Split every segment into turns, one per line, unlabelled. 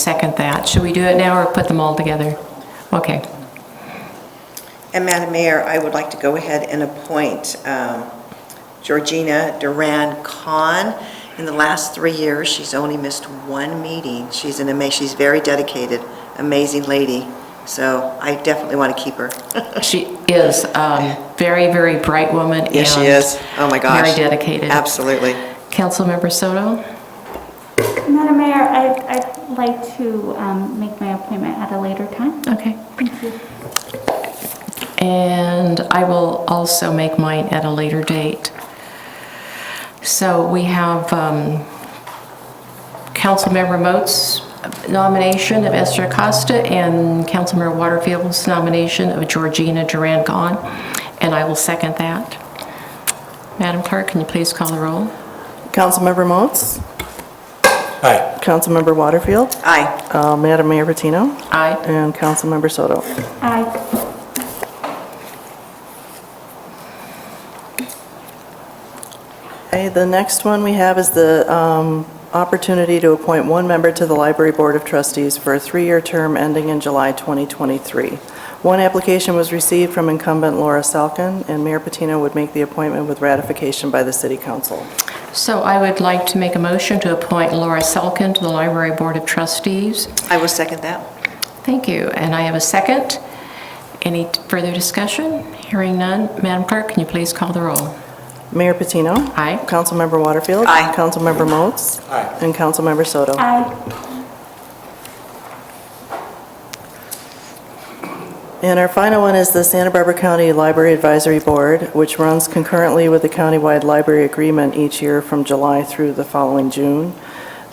second that. Should we do it now or put them all together? Okay.
And Madam Mayor, I would like to go ahead and appoint um, Georgina Duran Khan. In the last three years, she's only missed one meeting. She's an ama, she's very dedicated, amazing lady, so I definitely want to keep her.
She is a very, very bright woman.
Yes, she
and
is. Oh, my gosh.
Very dedicated.
Absolutely.
Councilmember Soto?
Madam Mayor, I- I'd like to um, make my appointment at a later time.
Okay.
Thank you.
And I will also make mine at a later date. So we have um, Councilmember Moats' nomination of Esther Acosta and Councilmember Waterfield's nomination of Georgina Duran Gahn, and I will second that. Madam Clerk, can you please call the roll?
Councilmember Moats?
Aye.
Councilmember Waterfield?
Aye.
uh, Madam Mayor Patino?
Aye.
And Councilmember Soto.
Aye.
Okay, the next one we have is the um, opportunity to appoint one member to the Library Board of Trustees for a three-year term ending in July 2023. One application was received from incumbent Laura Salkin, and Mayor Patino would make the appointment with ratification by the City Council.
So I would like to make a motion to appoint Laura Selkin to the Library Board of Trustees.
I will second that.
Thank you, and I have a second. Any further discussion? Hearing none. Madam Clerk, can you please call the roll?
Mayor Patino?
Aye.
Councilmember Waterfield?
Aye.
Councilmember Moats?
Aye.
And Councilmember Soto.
Aye.
And our final one is the Santa Barbara County Library Advisory Board, which runs concurrently with the countywide library agreement each year from July through the following June.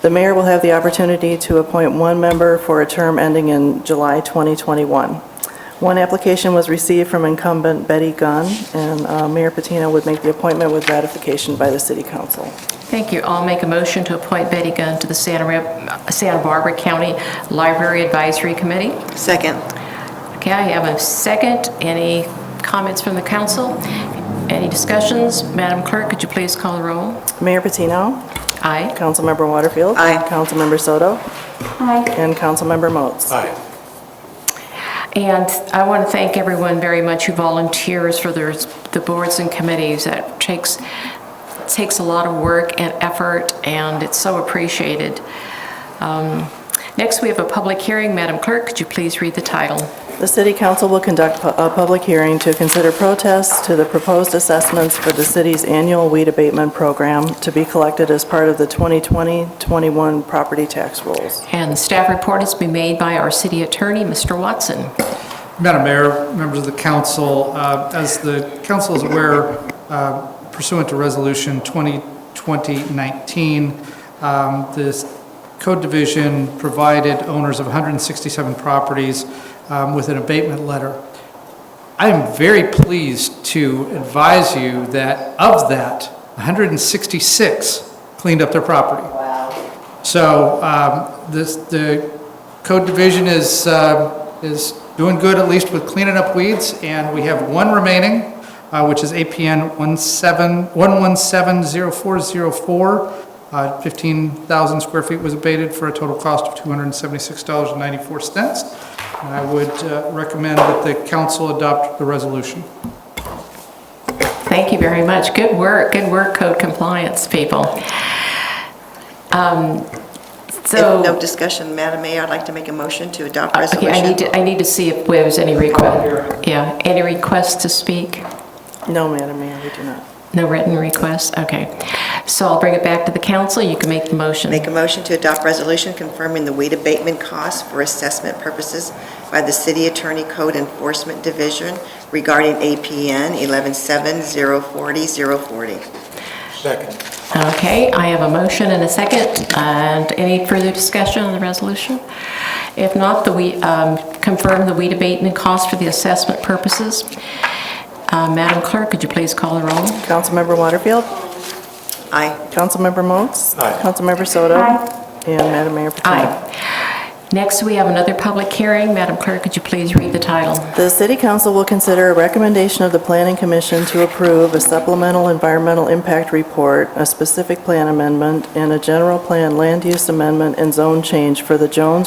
The mayor will have the opportunity to appoint one member for a term ending in July 2021. One application was received from incumbent Betty Gunn, and uh, Mayor Patino would make the appointment with ratification by the city council.
Thank you. I'll make a motion to appoint Betty Gunn to the Santa Rep- Santa Barbara County Library Advisory Committee.
Second.
Okay, I have a second. Any comments from the council? Any discussions? Madam Clerk, could you please call the roll?
Mayor Patino,
Aye.
Councilmember Waterfield.
Aye.
Councilmember Soto,
Aye.
and Councilmember Moats.
Aye.
And I want to thank everyone very much who volunteers for their, the boards and committees. That takes, takes a lot of work and effort, and it's so appreciated. Um, Next, we have a public hearing. Madam Clerk, could you please read the title?
The city council will conduct pu- a public hearing to consider protests to the proposed assessments for the city's annual weed abatement program to be collected as part of the 2020-21 property tax rules.
And staff report is to be made by our city attorney, Mr. Watson.
Madam Mayor, members of the council, uh, as the council is aware, uh, pursuant to Resolution 2020-19, um, this code division provided owners of 167 properties um, with an abatement letter. I am very pleased to advise you that of that, 166 cleaned up their property. So um, this, the code division is, uh, is doing good, at least with cleaning up weeds, and we have one remaining, uh, which is APN 1170404. Uh, 15,000 square feet was abated for a total cost of $276.94. And I would uh, recommend that the council adopt the resolution.
Thank you very much. Good work, good work, code compliance people. Um, So. Uh,
If no discussion, Madam Mayor, I'd like to make a motion to adopt
Okay, I need
resolution.
to, I need to see if there was any request, yeah, any requests to speak?
No, Madam Mayor, we do not.
No written requests? Okay. So I'll bring it back to the council, you can make the motion.
Make a motion to adopt resolution confirming the weed abatement costs for assessment purposes by the City Attorney Code Enforcement Division regarding APN 117040-040.
Second.
Okay, I have a motion and a second, and any further discussion on the resolution? If not, the, we, um, confirm the weed abatement cost for the assessment purposes. Uh, Madam Clerk, could you please call the roll?
Councilmember Waterfield,
Aye.
Councilmember Moats.
Aye.
Councilmember Soto.
Aye.
And Madam Mayor Patino.
Aye. Next, we have another public hearing. Madam Clerk, could you please read the title?
The city council will consider a recommendation of the planning commission to approve a supplemental environmental impact report, a specific plan amendment, and a general plan land use amendment and zone change for the Jones